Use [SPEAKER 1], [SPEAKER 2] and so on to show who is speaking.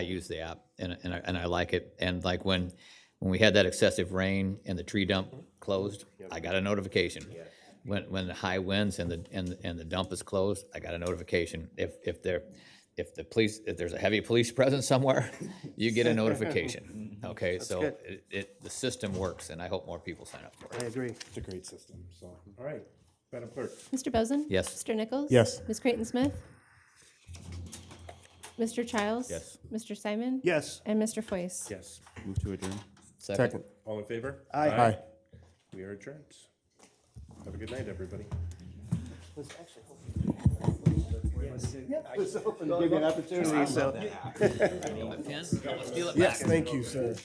[SPEAKER 1] I use the app and, and I, and I like it. And like when, when we had that excessive rain and the tree dump closed, I got a notification. When, when the high winds and the, and, and the dump is closed, I got a notification. If, if there, if the police, if there's a heavy police presence somewhere, you get a notification. Okay, so
[SPEAKER 2] good.
[SPEAKER 1] it, it, the system works and I hope more people sign up for it.
[SPEAKER 2] I agree.
[SPEAKER 3] It's a great system, so, all right, Madam Clerk.
[SPEAKER 4] Mr. Bozen?
[SPEAKER 1] Yes.
[SPEAKER 4] Mr. Nichols?
[SPEAKER 3] Yes.
[SPEAKER 4] Ms. Creighton Smith? Mr. Childs?
[SPEAKER 1] Yes.
[SPEAKER 4] Mr. Simon?
[SPEAKER 2] Yes.
[SPEAKER 4] And Mr. Foyce?
[SPEAKER 3] Yes.
[SPEAKER 5] Move to adjourn.
[SPEAKER 3] Second. All in favor?
[SPEAKER 2] Aye.
[SPEAKER 3] We are adjourned. Have a good night, everybody.
[SPEAKER 2] Give you an opportunity, so.
[SPEAKER 1] Pen? Steal it back.
[SPEAKER 2] Yes, thank you, sir.